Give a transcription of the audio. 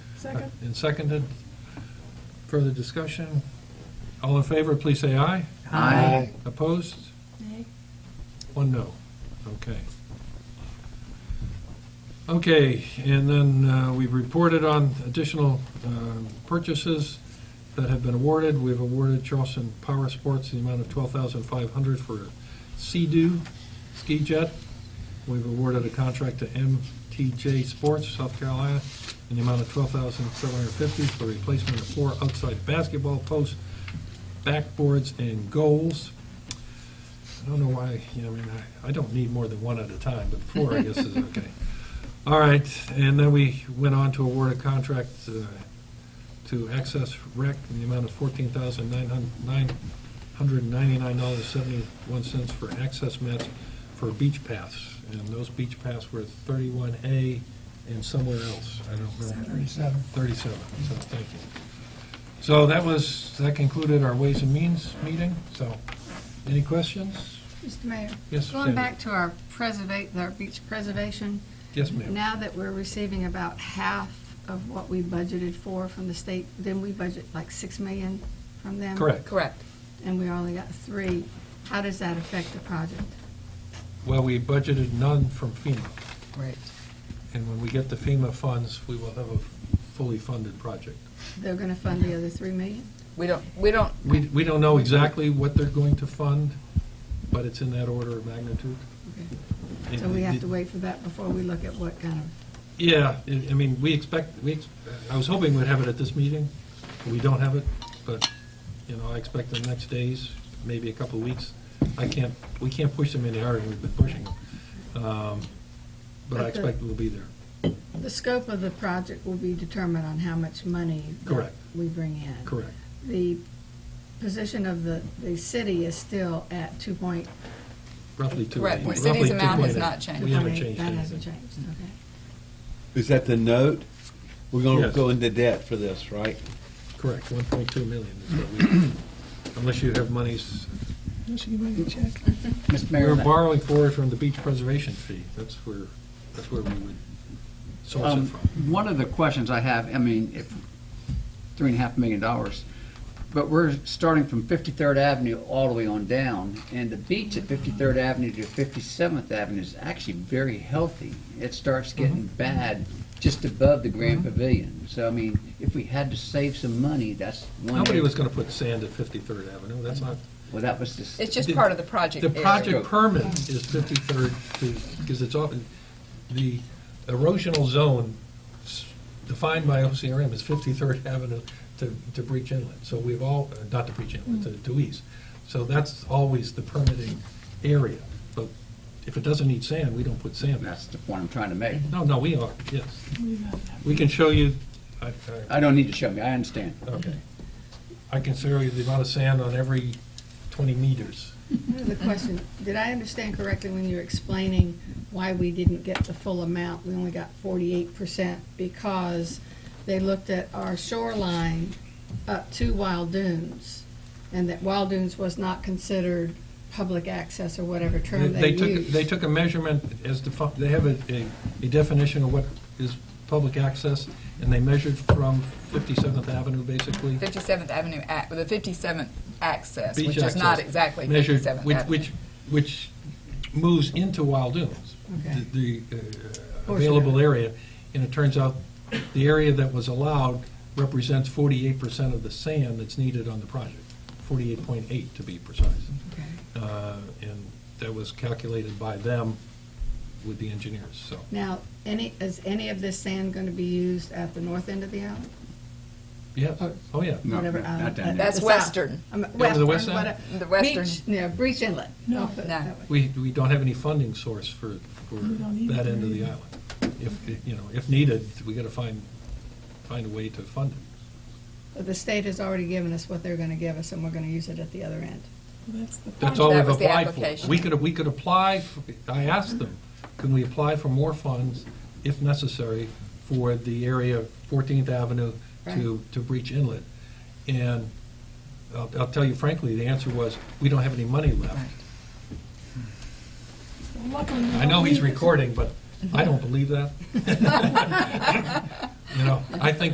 Second. Uh, And seconded. Further discussion? All in favor, please say aye. Aye. Opposed? Nay. One Oh, no. Okay. Okay, and then uh, we've reported on additional um, purchases that have been awarded. We've awarded Charleston Power Sports the amount of $12,500 for Sea-Doo ski jet. We've awarded a contract to MTJ Sports, South Carolina, in the amount of $12,750 for replacement of four outside basketball posts, backboards, and goals. I don't know why, you know, I mean, I, I don't need more than one at a time, but four, I guess, is okay. All right, and then we went on to award a contract uh, to Access Rec in the amount of fourteen thousand nine hundred ninety-nine dollars seventy-one cents for access mats for beach paths. And those beach paths were thirty-one A and somewhere else, I don't remember. Thirty-seven. 37, so thank you. So that was, that concluded our Ways and Means meeting, so any questions? Mr. Mayor? Yes, Sandy. Going back to our preservate, our beach preservation, Yes, ma'am. now that we're receiving about half of what we budgeted for from the state, then we budget like 6 million from them? Correct. Correct. And we only got three. How does that affect the project? Well, we budgeted none from FEMA, Right. and when we get the FEMA funds, we will have a fully funded project. They're going to fund the other 3 million? We don't, we don't, We, we don't know exactly what they're going to fund, but it's in that order of magnitude. Okay. So we have to wait for that before we look at what kind of, Yeah, I I mean, we expect, we, ex- I was hoping we'd have it at this meeting. We don't have it, but, you know, I expect in the next days, maybe a couple of weeks. I can't, we can't push them any harder than we've been pushing them. Um, But I But the- expect it will be there. the scope of the project will be determined on how much money that Correct. we bring in. Correct. The position of the, the city is still at 2.8. Roughly two. Correct. The roughly city's amount has 2.8. not changed. We haven't changed That hasn't anything. Mm. changed, okay. Is that the note? We're gonna Yes. go into debt for this, right? Correct, 1.2 million is what we, unless you have monies. Mr. Mayor, We're that- borrowing for it from the beach preservation fee. That's where, that's where we would source it um, from. one of the questions I have, I mean, if, three and a half million dollars, but we're starting from 53rd Avenue all the way on down, and the beach at 53rd Avenue to 57th Avenue is actually very healthy. It starts Mm-hmm. getting bad just above the Grand Pavilion. So, I mean, if we had to save some money, that's one. Nobody area- was going to put sand at 53rd Avenue, that's not, Well, that was just. it's just part of the project. the area. project permit is 53rd to, because it's often, the erosional zone s- defined by OCRM is 53rd Avenue to, to Breach Inlet, so we've all, uh, not to Breach Inlet, to- to East. So that's always the permitting area, but if it doesn't need sand, we don't put sand in. That's the point I'm trying to make. No, no, we are, yes. We can show you, I, I- I don't need to show me, I understand. okay. I can show you the amount of sand on every 20 meters. Another question, did I understand correctly when you were explaining why we didn't get the full amount? We only got forty-eight percent because they looked at our shoreline up to Wild Dunes, and that Wild Dunes was not considered public access or whatever term they They took, used. they took a measurement as defined, they have a, a- a definition of what is public access, and they measured from 57th Avenue, basically. 57th Avenue, ac- the 57th access, beach which is not access, exactly measured- 57th which- Avenue. Which, which moves into Wild Dunes, Okay. the the, uh, Portion of available it. area. And it turns out, the area that was allowed represents 48% of the sand that's needed on the project, 48.8 to be precise. Okay. Uh, And that was calculated by them with the engineers, so. Now, any, is any of this sand gonna be used at the north end of the island? Yeah, oh, yeah. No, Whatever island, no, not down at there. the That's south. western. I mean, Down to the Western, west side? whatever. The western. Beach, yeah, Breach Inlet. No. No. We, we don't have any funding source for, for that end of the island. If, you know, if needed, we gotta find, find a way to fund it. The state has already given us what they're gonna give us, and we're gonna use it at the other end. That's all we've Um, That was the applied for. application. We could, we could apply, for- I asked them, can we apply for more funds, if necessary, for the area of 14th Avenue to, to Breach Inlet? And I'll, I'll tell you frankly, the answer was, we don't have any money left. I know he's recording, but I don't believe that. You know, I think